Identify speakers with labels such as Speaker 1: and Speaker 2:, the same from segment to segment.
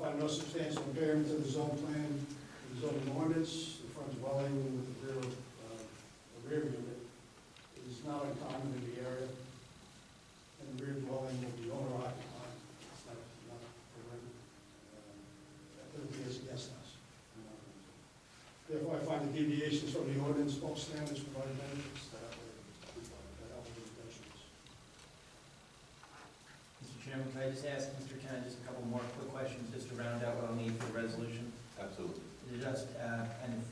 Speaker 1: found no substantial impairment to the zone plan, the zoning ordinance, the front dwelling with the rear, uh, the rear unit is not uncommon in the area, and the rear dwelling will be owner occupied, it's not, not for rent. Uh, That would be as a guest house. Therefore, I find the deviations from the ordinance, both standards provide benefits that outweigh, that outweigh the detriments.
Speaker 2: Mr. Chairman, can I just ask Mr. Kennedy just a couple more quick questions, just to round out what I'll need for the resolution?
Speaker 3: Absolutely.
Speaker 2: Just, uh, and if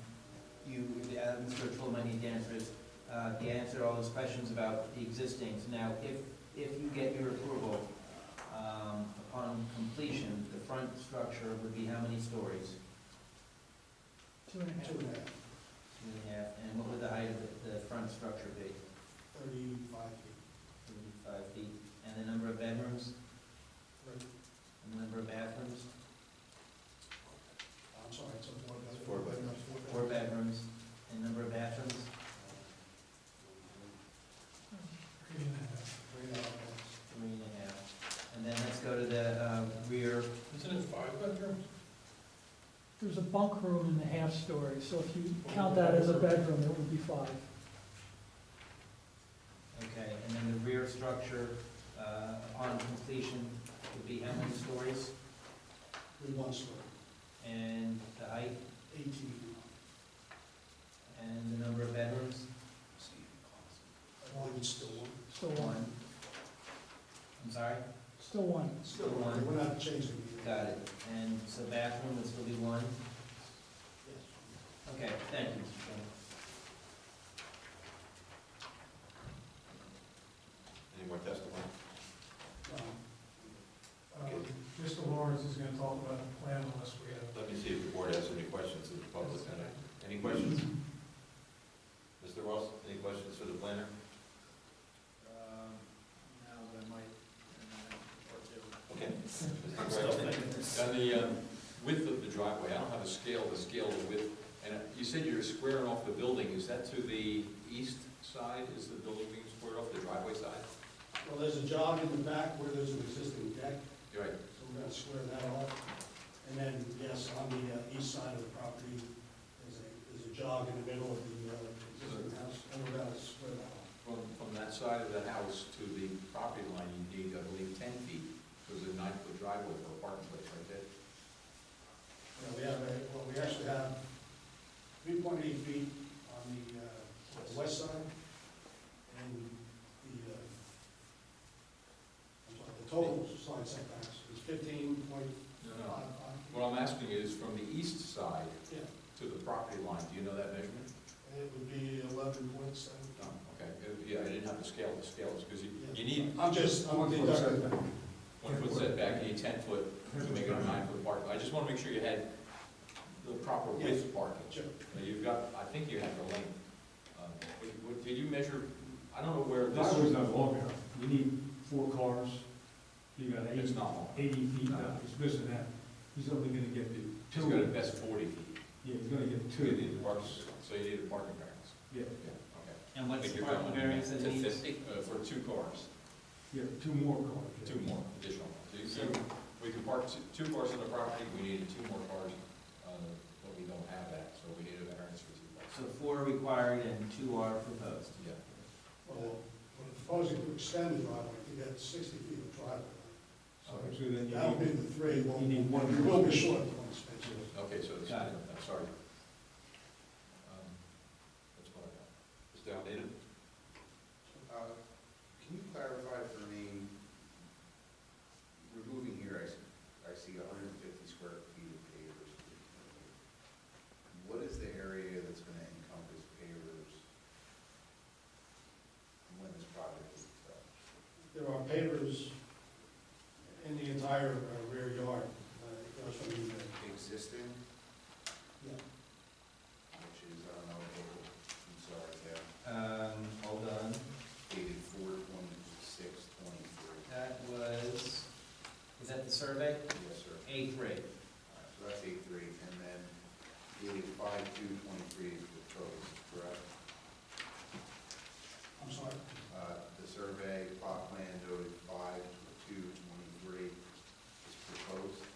Speaker 2: you, uh, Mr. O'Toole might need to answer is, uh, to answer all those questions about the existings. Now, if, if you get your approval, um, upon completion, the front structure would be how many stories?
Speaker 4: Two and a half.
Speaker 1: Two and a half,
Speaker 2: Two and a half, and what would the height of the, the front structure be?
Speaker 1: thirty-five feet.
Speaker 2: Thirty-five feet, and the number of bedrooms,
Speaker 1: Right.
Speaker 2: and the number of bathrooms?
Speaker 1: I'm sorry, it's a four bedroom.
Speaker 3: Four bedroom.
Speaker 2: Four bedrooms, and number of bathrooms?
Speaker 4: Three and a half.
Speaker 1: Three and a half bedrooms.
Speaker 2: Three and a half. And then let's go to the uh, rear,
Speaker 5: Isn't it five bedrooms?
Speaker 4: There's a bunk room in the half story, so if you count that as a bedroom, it would be five.
Speaker 2: okay, and then the rear structure uh, upon completion would be how many stories?
Speaker 1: Three one story,
Speaker 2: And the height,
Speaker 1: eighteen feet.
Speaker 2: and the number of bedrooms?
Speaker 1: I believe it's still one.
Speaker 4: Still one,
Speaker 2: I'm sorry?
Speaker 4: still one.
Speaker 1: Still one, we're not changing it.
Speaker 2: Got it. And so bathroom would still be one?
Speaker 1: Yes.
Speaker 2: Okay, thank you, Mr. Chairman.
Speaker 3: Any more testimony?
Speaker 1: Um,
Speaker 5: Mr. Lawrence is gonna talk about the plan unless we have.
Speaker 3: Let me see if the board has any questions of the public. Any questions? Mr. Ross, any questions for the planner?
Speaker 5: No, but Um, I might, and
Speaker 3: Okay.
Speaker 5: uh,
Speaker 3: Mr. Gregg, On the um, width of the driveway, I don't have a scale, the scale of width, and uh, you said you're squaring off the building, is that to the east side, is the building being squared off, the driveway side?
Speaker 1: Well, there's a jog in the back where there's an existing deck,
Speaker 3: You're right,
Speaker 1: so we're gonna square that off. And then, yes, on the uh, east side of the property, there's a, there's a jog in the middle of the uh, existing house, and we're gonna square that off.
Speaker 3: from, from that side of the house to the property line, you need, I believe, ten feet, because there's a nine-foot driveway for a parking place right there.
Speaker 1: Yeah, we have, a- well, we actually have three point eight feet on the, uh, on the west side, and the, uh, I'm sorry, the total side setbacks is fifteen point
Speaker 3: No,
Speaker 1: five
Speaker 3: no,
Speaker 1: five.
Speaker 3: what I'm asking is from the east side
Speaker 1: Yeah,
Speaker 3: to the property line, do you know that measurement?
Speaker 1: and it would be eleven point seven.
Speaker 3: No, okay, yeah, I didn't have the scale, the scale is, because you, you need
Speaker 1: I'm just, I'm deducting.
Speaker 3: one foot setback, you need ten foot to make it a nine foot parking. I just want to make sure you had the proper width parking.
Speaker 1: Sure.
Speaker 3: Now, You've got, I think you have the length. Um, what- what- Did you measure, I don't know where this,
Speaker 6: Driveway's not long enough, you need four cars, you got
Speaker 3: it's
Speaker 6: eighty,
Speaker 3: not long.
Speaker 6: eighty feet, now. uh, he's missing that, he's only gonna get the
Speaker 3: It's got
Speaker 6: two,
Speaker 3: at best forty feet.
Speaker 6: yeah, he's gonna get
Speaker 3: So you
Speaker 6: two,
Speaker 3: need a parking, so you need a parking variance.
Speaker 6: yeah,
Speaker 3: Yeah, okay.
Speaker 2: And
Speaker 3: I
Speaker 2: what's
Speaker 3: think
Speaker 2: the
Speaker 3: you're
Speaker 2: parking
Speaker 3: going
Speaker 2: variance that
Speaker 3: to
Speaker 2: needs?
Speaker 3: 50, uh, For two cars,
Speaker 6: yeah, two more cars.
Speaker 3: two more additional. So you- So we can park two- two cars on the property, we needed two more cars, uh, but we don't have that, so we need a variance for two cars.
Speaker 2: So four are required and two are proposed.
Speaker 3: Yeah.
Speaker 1: Well, we're proposing to extend the driveway to get sixty feet of driveway.
Speaker 6: Oh, So actually then
Speaker 1: That would
Speaker 6: you
Speaker 1: be
Speaker 6: need,
Speaker 1: the three, we'll,
Speaker 6: you need one.
Speaker 1: we will be short of one space.
Speaker 3: Okay, so it's,
Speaker 2: Got it.
Speaker 3: I'm sorry. Um, That's what I got. It's outdated?
Speaker 7: Uh, Can you clarify for me, removing here, I see, I see hundred and fifty square feet of pavers. What is the area that's gonna encompass pavers when this project is done?
Speaker 1: There are pavers in the entire uh, rear yard. Uh, It goes from the,
Speaker 7: Existing,
Speaker 1: yeah,
Speaker 7: which is, I don't know, I'm sorry, yeah,
Speaker 2: Um, hold on.
Speaker 7: dated four twenty-six twenty-three.
Speaker 2: That was, is that the survey?
Speaker 7: Yes, sir.
Speaker 2: A three.
Speaker 7: All right, So that's eight three, and then dated five two twenty-three is proposed, correct?
Speaker 1: I'm sorry.
Speaker 7: Uh, The survey plot plan noted five